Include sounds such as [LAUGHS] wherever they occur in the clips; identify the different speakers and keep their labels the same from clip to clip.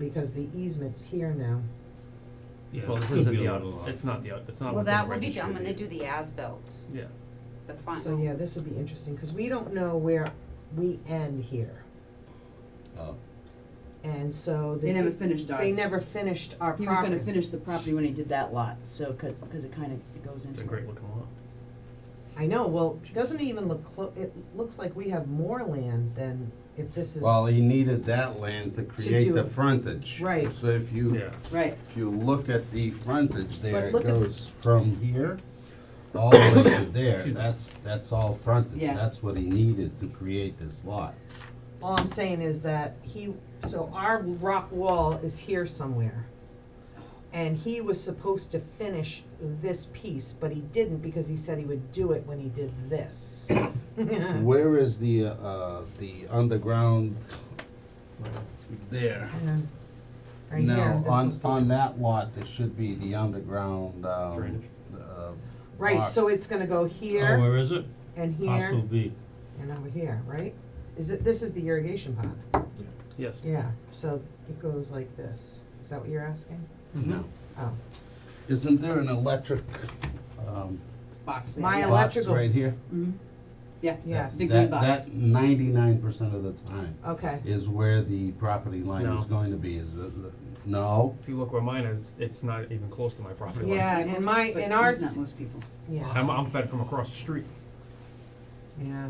Speaker 1: because the easement's here now.
Speaker 2: Yeah,
Speaker 3: Well,
Speaker 2: it's
Speaker 3: this isn't
Speaker 2: gonna be
Speaker 3: the
Speaker 2: a-
Speaker 3: out of lot.
Speaker 2: It's not the, out- it's not
Speaker 4: Well,
Speaker 2: within the
Speaker 4: that will be done
Speaker 2: registry.
Speaker 4: when they do the as-built,
Speaker 2: Yeah,
Speaker 4: the final.
Speaker 1: So yeah, this would be interesting, cause we don't know where we end here.
Speaker 3: Oh,
Speaker 1: And so they
Speaker 5: They never
Speaker 1: did-
Speaker 5: finished ours.
Speaker 1: They never finished our property.
Speaker 5: He was gonna finish the property when he did that lot, so, cause, 'cause it kinda, it goes into.
Speaker 2: it's a great looking lot.
Speaker 1: I know, well, doesn't it even look clo- it looks like we have more land than if this is.
Speaker 3: well, he needed that land to create
Speaker 5: do
Speaker 3: the
Speaker 5: it.
Speaker 3: frontage.
Speaker 1: Right.
Speaker 3: So if you,
Speaker 2: Yeah.
Speaker 5: Right,
Speaker 3: if you look at the frontage there, it
Speaker 1: look at the-
Speaker 3: goes from here all the
Speaker 2: [COUGHS]
Speaker 3: way to there.
Speaker 2: Excuse me.
Speaker 3: That's, that's all frontage.
Speaker 5: Yeah.
Speaker 3: That's what he needed to create this lot.
Speaker 1: All I'm saying is that he, so our rock wall is here somewhere. And he was supposed to finish this piece, but he didn't because he said he would do it when he did this. [LAUGHS] Uh-huh.
Speaker 3: Where is the, uh, the underground there?
Speaker 1: And Right here,
Speaker 3: Now,
Speaker 1: this
Speaker 3: on,
Speaker 1: was
Speaker 3: on
Speaker 1: built.
Speaker 3: that lot, there should be the underground, um.
Speaker 2: Drainage.
Speaker 3: uh,
Speaker 1: Right, so
Speaker 3: box.
Speaker 1: it's gonna go
Speaker 6: Oh,
Speaker 1: here
Speaker 6: where is it?
Speaker 1: and
Speaker 6: Parcel
Speaker 1: here
Speaker 6: B.
Speaker 1: and over here, right? Is it, this is the irrigation pond,
Speaker 2: Yes.
Speaker 1: yeah, so it goes like this. Is that what you're asking?
Speaker 2: Mm-hmm.
Speaker 3: No.
Speaker 1: Oh,
Speaker 3: Isn't there an electric, um,
Speaker 5: box there.
Speaker 1: My
Speaker 5: yeah.
Speaker 1: ele-
Speaker 3: box
Speaker 1: electrical-
Speaker 3: right here?
Speaker 5: Mhm. Yeah,
Speaker 1: yes,
Speaker 5: Big
Speaker 3: That-
Speaker 5: green box.
Speaker 3: That ninety-nine percent of the time
Speaker 1: okay,
Speaker 3: is where the property line is
Speaker 2: No.
Speaker 3: going to be, is the, the, no?
Speaker 2: If you look where mine is, it's not even close to my property line.
Speaker 1: Yeah, and
Speaker 5: Most-
Speaker 1: my-
Speaker 5: but
Speaker 1: and
Speaker 5: he's
Speaker 1: ours-
Speaker 5: Not most people.
Speaker 1: yeah,
Speaker 2: I'm, I'm fed from across the street.
Speaker 1: yeah.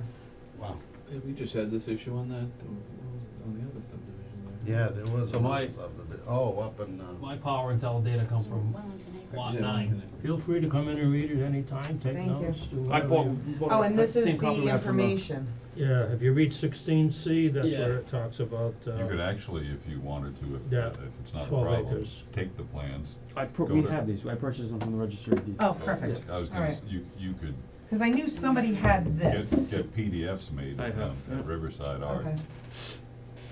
Speaker 3: Wow.
Speaker 7: Have we just had this issue on that, um, what was it, on the other subdivision there?
Speaker 3: Yeah, there was.
Speaker 2: So
Speaker 3: another
Speaker 2: my-
Speaker 3: subdivi- Oh, up in, uh,
Speaker 6: My power and tell data come from
Speaker 4: Wellington eh? Acres.
Speaker 6: lot
Speaker 7: Yeah,
Speaker 6: nine.
Speaker 7: Wellington.
Speaker 6: Feel free to come in and read it anytime, take
Speaker 1: Thank you.
Speaker 6: notes, do
Speaker 2: I
Speaker 6: whatever.
Speaker 2: bought,
Speaker 6: you-
Speaker 2: bought
Speaker 1: Oh, and
Speaker 2: that
Speaker 1: this is
Speaker 2: same copy
Speaker 1: the
Speaker 2: we had from
Speaker 1: information.
Speaker 6: Yeah, if you read sixteen C, that's
Speaker 2: Yeah.
Speaker 6: where it talks about,
Speaker 8: You could
Speaker 6: uh,
Speaker 8: actually, if you wanted to,
Speaker 6: Yeah,
Speaker 8: if, if it's not a
Speaker 6: 12
Speaker 8: problem,
Speaker 6: acres.
Speaker 8: take the plans.
Speaker 9: I pur-
Speaker 8: Go
Speaker 9: we
Speaker 8: to-
Speaker 9: have these, I purchased them from the registry of deeds.
Speaker 1: Oh, perfect,
Speaker 8: I was
Speaker 1: All
Speaker 8: gonna, s- you, you could
Speaker 1: cause I knew somebody had
Speaker 8: get,
Speaker 1: this.
Speaker 8: get PDFs made
Speaker 2: I
Speaker 8: at,
Speaker 2: have,
Speaker 8: um,
Speaker 2: yeah.
Speaker 8: at Riverside Art.
Speaker 1: Okay,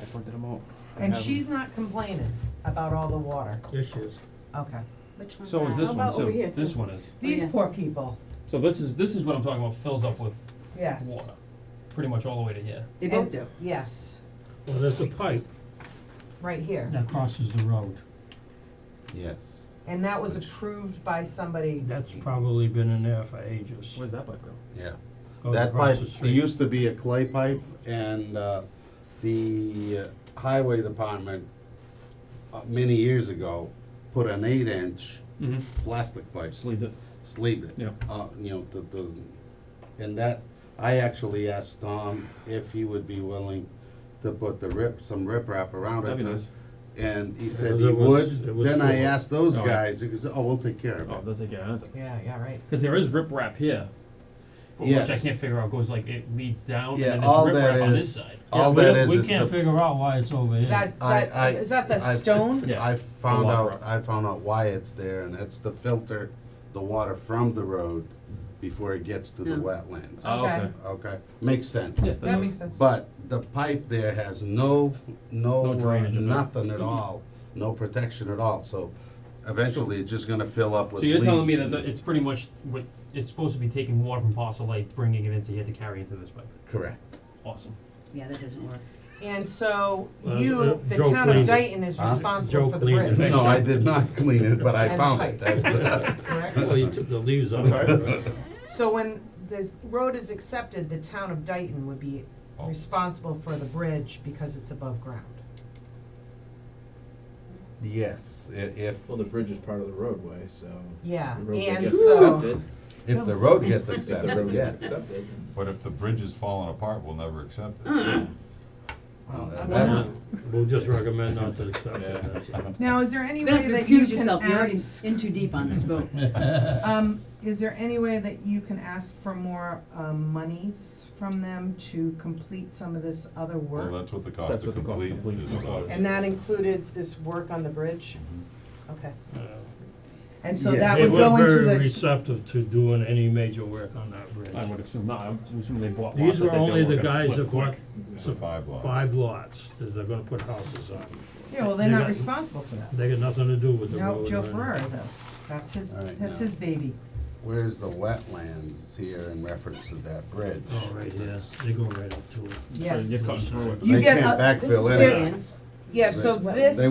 Speaker 9: I printed them out. I
Speaker 1: and
Speaker 9: have
Speaker 1: she's not complaining about all the water,
Speaker 6: issues.
Speaker 1: okay.
Speaker 4: Which
Speaker 2: the-
Speaker 4: one's
Speaker 2: So is
Speaker 4: that?
Speaker 2: this
Speaker 5: How
Speaker 2: one,
Speaker 5: about over
Speaker 2: so
Speaker 5: here,
Speaker 2: this
Speaker 5: too?
Speaker 2: one is.
Speaker 1: These
Speaker 5: yeah.
Speaker 1: poor people,
Speaker 2: So this is, this is what I'm talking about, fills up with
Speaker 1: yes,
Speaker 2: water, pretty much all the way to here.
Speaker 5: They
Speaker 1: And-
Speaker 5: both do.
Speaker 1: yes,
Speaker 6: Well, there's a pipe
Speaker 1: right here.
Speaker 6: that crosses the road.
Speaker 3: yes.
Speaker 1: And that was approved by somebody,
Speaker 6: That's probably been in there for ages.
Speaker 2: Where's that pipe go?
Speaker 3: Yeah.
Speaker 6: Goes
Speaker 3: That
Speaker 6: across
Speaker 3: pipe,
Speaker 6: the
Speaker 3: it
Speaker 6: street.
Speaker 3: used to be a clay pipe, and uh, the uh, highway department, uh, many years ago, put an eight-inch
Speaker 2: Mm-hmm.
Speaker 3: plastic pipe,
Speaker 9: Just leave it.
Speaker 3: sleeve it.
Speaker 9: Yeah.
Speaker 3: Uh, you know, the, the, and that, I actually asked Tom if he would be willing to put the rip, some riprap around it.
Speaker 9: That'd be
Speaker 3: to-
Speaker 9: nice.
Speaker 3: And he
Speaker 6: Because
Speaker 3: said he
Speaker 6: it was- it
Speaker 3: would,
Speaker 6: was
Speaker 3: then I
Speaker 6: full.
Speaker 3: asked those
Speaker 2: Oh, yeah.
Speaker 3: guys, he goes, oh, we'll take care
Speaker 2: Oh,
Speaker 3: of it.
Speaker 2: that's like, yeah, that's,
Speaker 1: yeah, yeah, right,
Speaker 2: cause there is riprap here. but Which I
Speaker 3: Yes.
Speaker 2: can't figure out, goes like, it leads down and
Speaker 3: Yeah,
Speaker 2: then
Speaker 3: all
Speaker 2: there's
Speaker 3: that
Speaker 2: riprap on
Speaker 3: is-
Speaker 2: this side.
Speaker 1: Oh,
Speaker 6: Yeah,
Speaker 3: All
Speaker 6: we-
Speaker 3: that is
Speaker 6: We
Speaker 3: is
Speaker 6: can't
Speaker 3: the-
Speaker 6: figure out why it's over here.
Speaker 1: that,
Speaker 3: I- I-
Speaker 1: that, is that the
Speaker 3: I-
Speaker 1: stone?
Speaker 2: Yeah.
Speaker 3: I found
Speaker 2: The
Speaker 3: out,
Speaker 2: water.
Speaker 3: I found out why it's there, and it's to filter the water from the road before it gets to the
Speaker 5: Yeah.
Speaker 3: wetlands.
Speaker 2: Oh,
Speaker 1: Okay.
Speaker 2: okay.
Speaker 3: Okay, makes sense.
Speaker 2: Yeah,
Speaker 1: That makes sense.
Speaker 3: But the pipe there has no,
Speaker 2: No
Speaker 3: no, uh,
Speaker 2: drainage at all.
Speaker 3: nothing at all, no protection at all, so eventually it's just gonna fill up with
Speaker 2: So you're
Speaker 3: leaves.
Speaker 2: telling me that the-
Speaker 3: and-
Speaker 2: it's pretty much what, it's supposed to be taking water from parcel A, bringing it into here to carry into this pipe.
Speaker 3: Correct.
Speaker 2: Awesome.
Speaker 5: Yeah, that doesn't work.
Speaker 1: And so
Speaker 6: Well,
Speaker 1: you,
Speaker 6: uh,
Speaker 1: the
Speaker 6: Joe
Speaker 1: town of
Speaker 6: cleaned it.
Speaker 1: Dayton is
Speaker 3: Huh?
Speaker 1: responsible
Speaker 6: Joe
Speaker 1: for the
Speaker 6: cleaned it.
Speaker 1: bridge,
Speaker 3: No, I did not [LAUGHS] clean it, but I
Speaker 1: And
Speaker 3: found
Speaker 1: pipe.
Speaker 3: it, that's,
Speaker 1: correct?
Speaker 6: Well, you took the
Speaker 3: [LAUGHS]
Speaker 6: leaves off. right?
Speaker 1: So when the road is accepted, the town of Dayton would be
Speaker 6: Oh.
Speaker 1: responsible for the bridge because it's above ground.
Speaker 3: yes, i- if,
Speaker 7: Well, the bridge is part of the roadway, so.
Speaker 1: Yeah,
Speaker 7: The roadway
Speaker 1: and
Speaker 7: gets
Speaker 1: so-
Speaker 7: accepted,
Speaker 3: if the road gets
Speaker 7: if the road [LAUGHS]
Speaker 3: accepted,
Speaker 7: gets
Speaker 3: yes.
Speaker 7: accepted.
Speaker 8: But if the bridge is falling apart, we'll never accept it.
Speaker 3: Uh,
Speaker 1: Wow.
Speaker 3: That's,
Speaker 6: We'll just recommend not to accept it, that's it.
Speaker 1: Now, is there any
Speaker 5: Don't
Speaker 1: way that you
Speaker 5: confuse
Speaker 1: can
Speaker 5: yourself, you're already
Speaker 1: ask,
Speaker 5: in too deep on
Speaker 2: [LAUGHS]
Speaker 5: this vote.
Speaker 1: um, is there any way that you can ask for more, um, monies from them to complete some of this other
Speaker 8: Well,
Speaker 1: work?
Speaker 8: that's what the cost to complete is uh, about.
Speaker 1: And that included this work on the bridge? Okay,
Speaker 6: Uh,
Speaker 1: and so
Speaker 3: Yeah.
Speaker 1: that
Speaker 6: They
Speaker 1: would go
Speaker 6: were
Speaker 1: into
Speaker 6: very
Speaker 1: the,
Speaker 6: receptive to doing any major work on that
Speaker 2: I
Speaker 6: bridge.
Speaker 2: would assume not, I'm assuming they bought lots
Speaker 6: These
Speaker 2: that
Speaker 6: were
Speaker 2: they
Speaker 6: only
Speaker 2: were
Speaker 6: the
Speaker 2: gonna
Speaker 6: guys
Speaker 2: flip
Speaker 6: that bought
Speaker 2: quick.
Speaker 8: It's a five lots.
Speaker 6: five lots that they're gonna put houses on.
Speaker 1: yeah, well, they're
Speaker 6: They
Speaker 1: not
Speaker 6: got-
Speaker 1: responsible for that.
Speaker 6: They got nothing to do with the road.
Speaker 1: No, Joe
Speaker 6: or anything.
Speaker 1: Ferraro does, that's his,
Speaker 3: All right,
Speaker 1: that's
Speaker 3: now.
Speaker 1: his baby.
Speaker 3: where's the wetlands here in reference to that bridge?
Speaker 6: Oh, right here, they go right up to it.
Speaker 2: So you're
Speaker 1: Yes.
Speaker 2: cutting through it.
Speaker 1: You
Speaker 3: They
Speaker 1: get
Speaker 3: can't
Speaker 1: a-
Speaker 3: backfill
Speaker 1: this is
Speaker 3: in it.
Speaker 1: where- Yeah, so
Speaker 3: They-
Speaker 1: this.
Speaker 3: they